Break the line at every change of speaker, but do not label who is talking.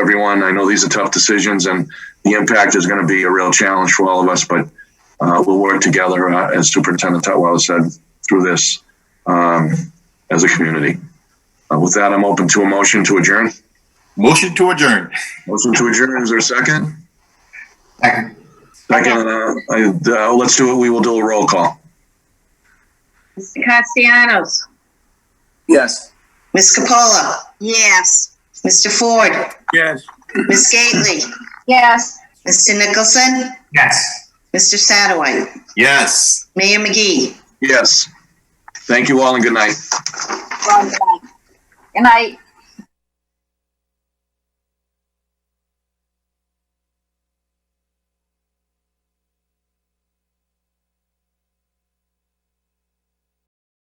everyone. I know these are tough decisions, and the impact is going to be a real challenge for all of us. But uh, we'll work together, uh, as Superintendent Tutwiler said, through this um, as a community. Uh, with that, I'm open to a motion to adjourn.
Motion to adjourn.
Motion to adjourn. Is there a second?
Second.
Second. Uh, I, uh, let's do it. We will do a roll call.
Mr. Castellanos.
Yes.
Ms. Capola,
Yes.
Mr. Ford,
Yes.
Ms. Gately,
Yes.
Mr. Nicholson,
Yes.
Mr. Sadoway,
Yes.
Mayor McGee.
Yes. Thank you all, and good night.
Good night.